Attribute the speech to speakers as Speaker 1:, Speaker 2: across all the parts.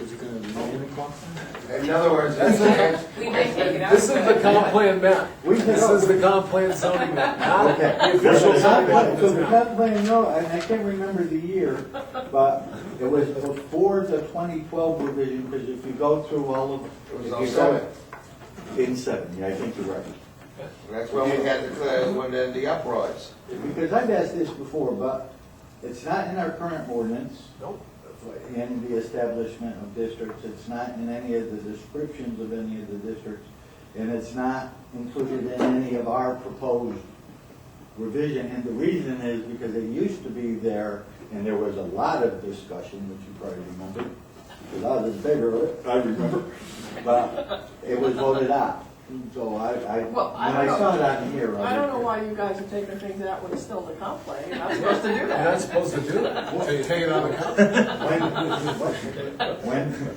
Speaker 1: Is it gonna remain a comp plan?
Speaker 2: In other words,
Speaker 3: That's
Speaker 2: it's
Speaker 3: okay.
Speaker 4: We might take it out.
Speaker 3: This is the comp plan map.
Speaker 5: We can
Speaker 3: This
Speaker 5: go.
Speaker 3: is the comp plan zoning map, not
Speaker 5: Okay.
Speaker 3: the official
Speaker 5: Not
Speaker 3: zoning
Speaker 5: like-
Speaker 3: map.
Speaker 5: So
Speaker 3: Does
Speaker 5: the
Speaker 3: not-
Speaker 5: comp plan, no, and I can't remember the year, but it was before the twenty twelve revision, because if you go through all of.
Speaker 2: It was
Speaker 5: if
Speaker 2: on
Speaker 5: you go-
Speaker 2: seven.
Speaker 5: In seven, yeah, I think you're right.
Speaker 2: That's when we had the, when the- the uproars.
Speaker 5: Because I've asked this before, but it's not in our current ordinance,
Speaker 3: Nope.
Speaker 5: in the establishment of districts, it's not in any of the descriptions of any of the districts, and it's not included in any of our proposed revision, and the reason is because it used to be there, and there was a lot of discussion, which you probably remember, because I was bigger, I remember, but it was voted out, so I, I,
Speaker 4: Well, I
Speaker 5: when I
Speaker 4: don't
Speaker 5: saw it on here.
Speaker 4: I don't know
Speaker 5: was-
Speaker 4: why you guys are taking things out when it's still in the comp plan. You're not supposed to do
Speaker 3: You're
Speaker 4: that.
Speaker 3: not supposed to do that. Take take it out of the comp. plan.
Speaker 5: When, when,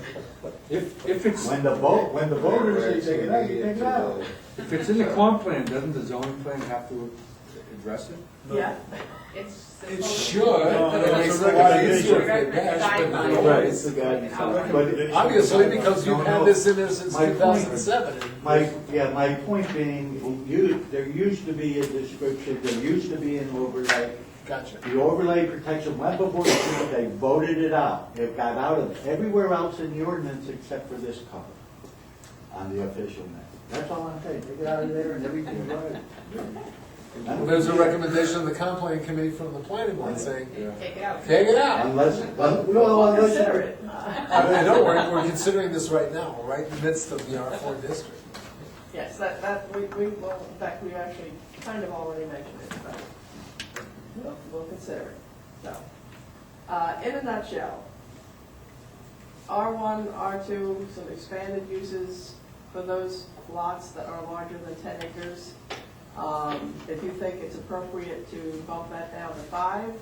Speaker 1: If, if it's,
Speaker 5: when the vote, when the voters say take it out, you take it out.
Speaker 1: if it's in the comp plan, doesn't the zoning plan have to address it?
Speaker 4: Yeah.
Speaker 6: It's.
Speaker 3: It
Speaker 6: supposed-
Speaker 3: should, but it makes it a lot easier if they dash, but not always.
Speaker 5: the guy.
Speaker 6: Right.
Speaker 3: Obviously, because you've had this in there since
Speaker 5: My
Speaker 3: two
Speaker 5: point-
Speaker 3: thousand seven.
Speaker 5: My, yeah, my point being, you, there used to be a description, there used to be an overlay.
Speaker 3: Gotcha.
Speaker 5: The overlay protection, went before the people, they voted it out. It got out of everywhere else in the ordinance except for this cover on the official map. That's all I'm saying, take it out of there and everything.
Speaker 3: Well, There's a recommendation of the comp plan committee from the planning board saying,
Speaker 6: Take it out.
Speaker 3: take it out.
Speaker 5: Unless, well,
Speaker 4: We'll
Speaker 5: unless.
Speaker 4: consider it.
Speaker 3: I mean, don't worry, we're considering this right now, we're right in the midst of the R four district.
Speaker 4: Yes, that, that, we, we, well, in fact, we actually kind of already mentioned it, but we'll, we'll consider it, so. Uh, in a nutshell, R one, R two, some expanded uses for those lots that are larger than ten acres. Um, if you think it's appropriate to bump that down to five,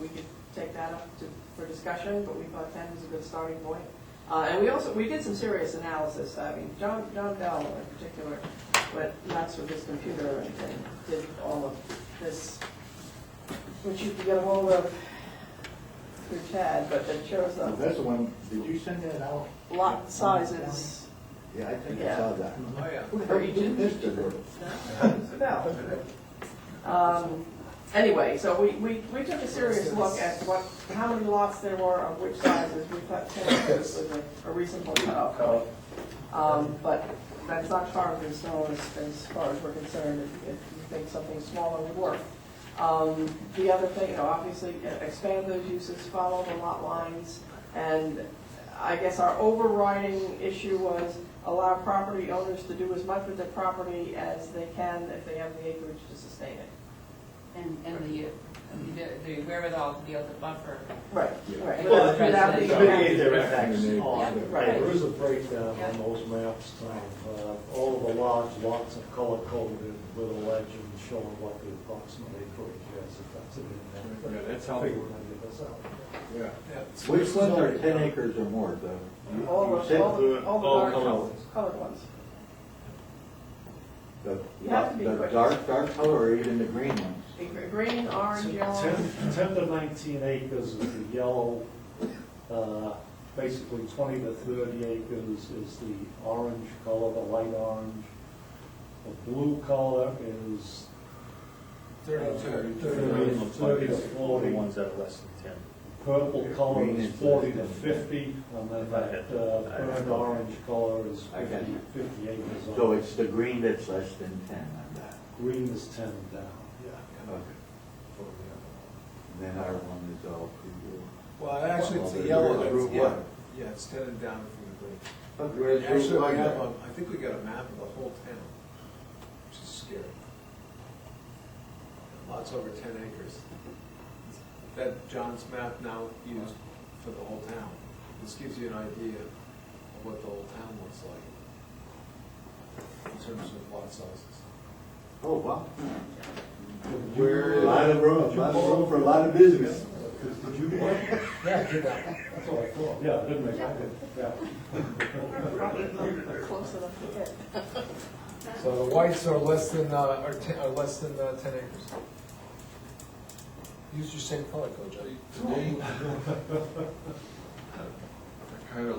Speaker 4: we could take that up to, for discussion, but we thought ten was a good starting point. Uh, and we also, we did some serious analysis, I mean, John, John Bell in particular, went nuts with his computer and, and did all of this, which you can get a hold of through Chad, but it shows the
Speaker 5: That's the one, did you send that out?
Speaker 4: lot sizes.
Speaker 5: Yeah, I think I saw that.
Speaker 3: Oh, yeah.
Speaker 5: Who missed it?
Speaker 4: No. Um, Anyway, so we, we, we took a serious look at what, how many lots there were, of which sizes, we thought ten acres was a- a reasonable cutoff point. Um, but that's not carved in stone as, as far as we're concerned, if if you think something smaller would work. Um, the other thing, you know, obviously, e- expand those uses, follow the lot lines, and I guess our overriding issue was allow property owners to do as much with their property as they can if they have the acreage to sustain it.
Speaker 6: And, and the, the- the wherewithal to be able to buffer.
Speaker 4: Right, right.
Speaker 6: Well,
Speaker 4: Without- without the-
Speaker 6: Yeah.
Speaker 7: Mitigate their effects
Speaker 5: Oh,
Speaker 7: on,
Speaker 4: Right.
Speaker 7: there is a breakdown
Speaker 6: Yeah.
Speaker 7: on those maps of uh, all the lots, lots of color coded with a legend showing what the approximate acreage is, if that's an
Speaker 1: Yeah,
Speaker 7: impact.
Speaker 1: that's
Speaker 7: Figure
Speaker 1: helpful.
Speaker 7: any of this out.
Speaker 1: Yeah.
Speaker 3: Yeah, it's-
Speaker 5: Which ones are ten acres or more, though? You-
Speaker 4: All
Speaker 5: you
Speaker 4: of,
Speaker 5: said
Speaker 4: all
Speaker 5: the-
Speaker 4: the, all
Speaker 7: all
Speaker 4: the
Speaker 7: colored
Speaker 4: dark
Speaker 7: ones.
Speaker 4: colored ones.
Speaker 5: The,
Speaker 4: You have to be
Speaker 5: the
Speaker 4: quick.
Speaker 5: dark, dark color or even the green ones?
Speaker 4: The gr- Green, orange, yellow.
Speaker 7: Ten, ten to nineteen acres is the yellow, uh, basically twenty to thirty acres is the orange color, the light orange. The blue color is
Speaker 3: Thirty-two.
Speaker 7: Thirty. Thirty to forty.
Speaker 8: The ones that are less than ten.
Speaker 7: Purple color
Speaker 5: Green
Speaker 7: is
Speaker 5: is
Speaker 7: forty
Speaker 5: less
Speaker 7: to
Speaker 5: than-
Speaker 7: fifty, and then that uh,
Speaker 8: I-
Speaker 7: burnt orange color is
Speaker 5: I got
Speaker 7: fifty,
Speaker 5: you.
Speaker 7: fifty acres.
Speaker 5: So it's the green that's less than ten on that.
Speaker 7: Green is ten down, yeah.
Speaker 5: Okay. Then our one is all pre
Speaker 3: Well, actually, it's
Speaker 5: Well,
Speaker 3: the yellow
Speaker 5: they're
Speaker 3: that's,
Speaker 5: Route
Speaker 3: yeah,
Speaker 5: one.
Speaker 3: yeah, it's headed down from the
Speaker 2: Where's
Speaker 3: green.
Speaker 2: Route
Speaker 3: Actually,
Speaker 2: one
Speaker 3: we have,
Speaker 2: then?
Speaker 3: a- I think we got a map of the whole town, which is scary. Lots over ten acres. That John's map now used for the whole town. This gives you an idea of what the whole town looks like in terms of lot sizes.
Speaker 5: Oh, wow.
Speaker 2: Where
Speaker 5: A
Speaker 2: is?
Speaker 5: lot of room, a lot of room for a lot of business.
Speaker 7: Did you point?
Speaker 3: Yeah, good that.
Speaker 7: That's what I thought, yeah, I didn't make that, yeah.
Speaker 4: Close enough to get.
Speaker 3: So the whites are less than, uh, are ten, are less than uh, ten acres. Use your same color code, Joe.
Speaker 2: Today,